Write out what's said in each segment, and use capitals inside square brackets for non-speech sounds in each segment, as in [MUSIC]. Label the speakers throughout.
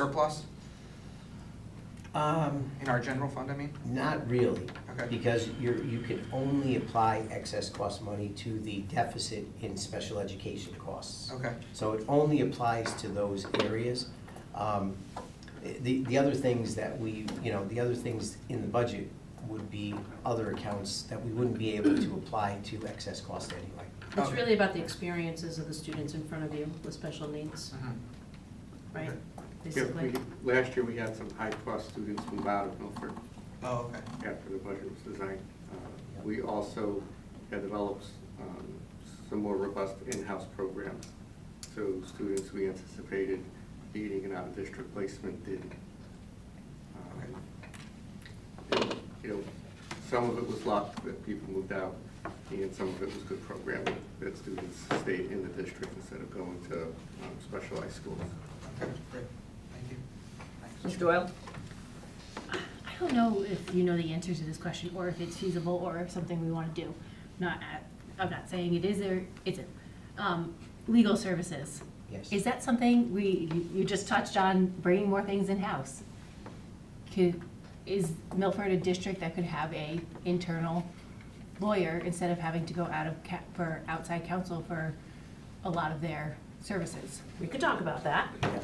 Speaker 1: surplus
Speaker 2: Um,
Speaker 1: in our general fund, I mean?
Speaker 2: not really.
Speaker 1: Okay.
Speaker 2: Because you're, you can only apply excess cost money to the deficit in special education costs.
Speaker 1: Okay.
Speaker 2: So it only applies to those areas. Um, The, the other things that we, you know, the other things in the budget would be other accounts that we wouldn't be able to apply to excess cost anyway.
Speaker 3: It's
Speaker 1: Okay.
Speaker 3: really about the experiences of the students in front of you with special needs,
Speaker 1: Mhm.
Speaker 3: right?
Speaker 1: Okay.
Speaker 4: Yeah,
Speaker 3: Basically.
Speaker 4: we- Last year, we had some high-cost students move out of Milford
Speaker 1: Oh, okay.
Speaker 4: after the budget was designed. Uh, We also had developed um, some more robust in-house programs. So students we anticipated needing an out-of-district placement did. Um, and, You know, some of it was luck that people moved out, and some of it was good programming, that students stayed in the district instead of going to um, specialized schools.
Speaker 1: Okay, great. Thank you. Thanks.
Speaker 5: Ms. Doyle?
Speaker 6: I don't know if you know the answer to this question, or if it's feasible, or if something we want to do. Not, at- I'm not saying it is or isn't. Um, Legal services,
Speaker 2: Yes.
Speaker 6: is that something we, you- you just touched on bringing more things in-house? Could, is Milford a district that could have a internal lawyer instead of having to go out of, ca- for outside counsel for a lot of their services? We could talk about that.
Speaker 2: Yeah.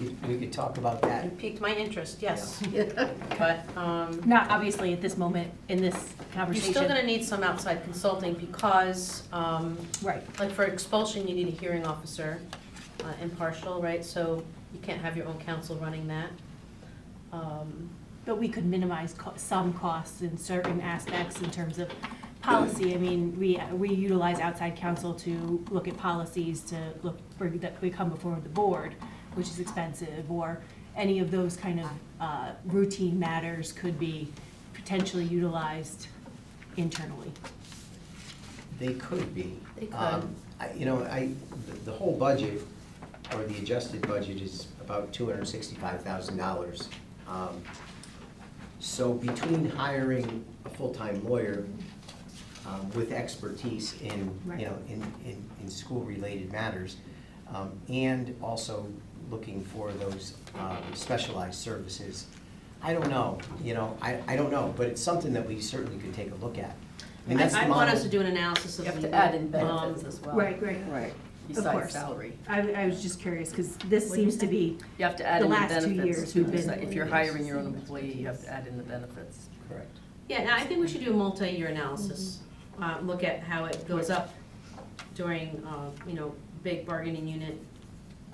Speaker 2: We could- We could talk about that.
Speaker 5: It piqued my interest, yes. [LAUGHS] But um,
Speaker 6: Not obviously at this moment in this
Speaker 5: you're
Speaker 6: conversation.
Speaker 5: still going to need some outside consulting because, um,
Speaker 6: Right.
Speaker 5: like for expulsion, you need a hearing officer, uh, impartial, right? So you can't have your own counsel running that. Um,
Speaker 6: But we could minimize co- some costs in certain aspects in terms of policy. I mean, we, we utilize outside counsel to look at policies, to look, for- that we come before the board, which is expensive, or any of those kind of uh, routine matters could be potentially utilized internally.
Speaker 2: They could be.
Speaker 5: They could.
Speaker 2: Um, I- You know, I, the- the whole budget, or the adjusted budget is about two hundred and sixty-five thousand dollars. Um, So between hiring a full-time lawyer um, with expertise in, you
Speaker 6: Right.
Speaker 2: know, in, in, in school-related matters, um, and also looking for those um, specialized services, I don't know, you know, I, I don't know, but it's something that we certainly could take a look at. mean, that's the
Speaker 5: I I want
Speaker 2: model-
Speaker 5: us to do an analysis of.
Speaker 7: You have to
Speaker 5: the,
Speaker 7: add in
Speaker 5: um,
Speaker 7: benefits as well.
Speaker 6: right.
Speaker 7: Right,
Speaker 6: course.
Speaker 7: besides salary.
Speaker 6: I, I was just curious, because this
Speaker 5: What'd you
Speaker 6: seems to
Speaker 5: say?
Speaker 6: be,
Speaker 7: You have to add
Speaker 6: The
Speaker 7: in the
Speaker 6: last two
Speaker 7: benefits
Speaker 6: years
Speaker 7: too.
Speaker 6: we've been-
Speaker 7: besi- If you're hiring your own employee, you have to add in the benefits.
Speaker 2: Correct.
Speaker 5: Yeah, no, I think we should do a multi-year analysis. Uh, Look at how it goes up during, uh, you know, big bargaining unit.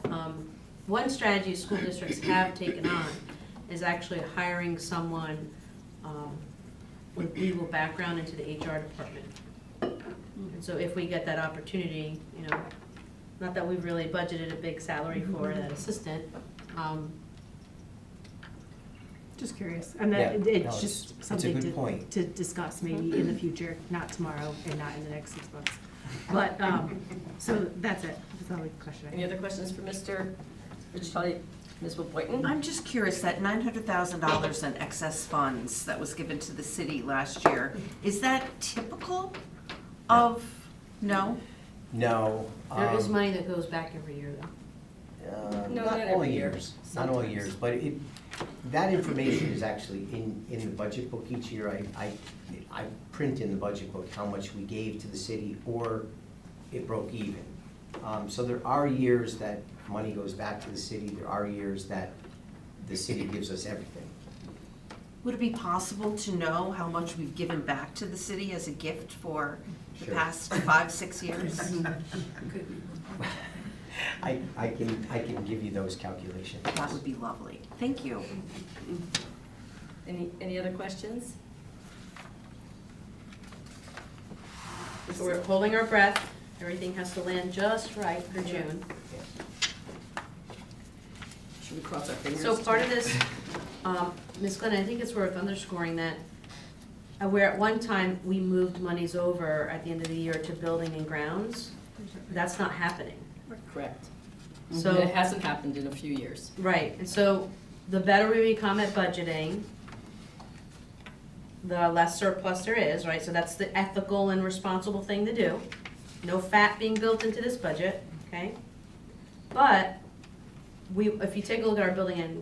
Speaker 5: Um, One strategy school districts have taken on is actually hiring someone um, with legal background into the HR department. And so if we get that opportunity, you know, not that we've really budgeted a big salary for that assistant, um,
Speaker 6: just curious. And that,
Speaker 2: Yeah, no,
Speaker 6: it's
Speaker 2: it's- it's
Speaker 6: just
Speaker 2: a
Speaker 6: something
Speaker 2: good
Speaker 6: to,
Speaker 2: point.
Speaker 6: to discuss maybe in the future, not tomorrow and not in the next six months. But, um, so that's it. That's all the question I
Speaker 7: Any
Speaker 6: have.
Speaker 7: other questions for Mr. Richatelli, Ms. Boynton?
Speaker 8: I'm just curious, that nine hundred thousand dollars in excess funds that was given to the city last year, is that typical of, no?
Speaker 2: No.
Speaker 5: there is
Speaker 2: um,
Speaker 5: money that goes back every year though.
Speaker 2: uh,
Speaker 7: No,
Speaker 2: Not
Speaker 7: not
Speaker 2: all
Speaker 7: every year.
Speaker 2: years, not all years, but it, that information is actually in, in the budget book each year. I, I, I print in the budget book how much we gave to the city or it broke even. Um, so there are years that money goes back to the city, there are years that the city gives us everything. [LAUGHS]
Speaker 8: Would it be possible to know how much we've given back to the city as a gift for the
Speaker 2: Sure.
Speaker 8: past five, six years?
Speaker 1: [LAUGHS]
Speaker 2: I, I can, I can give you those calculations.
Speaker 8: That would be lovely. Thank you.
Speaker 7: Any, any other questions? This
Speaker 5: So we're
Speaker 7: is-
Speaker 5: holding our breath, everything has to land just right for June.
Speaker 7: Should we cross our fingers?
Speaker 5: So part of this, um, Ms. Glenn, I think it's worth underscoring that uh, where at one time we moved monies over at the end of the year to building and grounds, that's not happening.
Speaker 7: Correct.
Speaker 5: So-
Speaker 7: So it hasn't happened in a few years.
Speaker 5: Right, and so the better we become at budgeting, the less surplus there is, right? So that's the ethical and responsible thing to do. No fat being built into this budget, okay? But we, if you take a look at our building and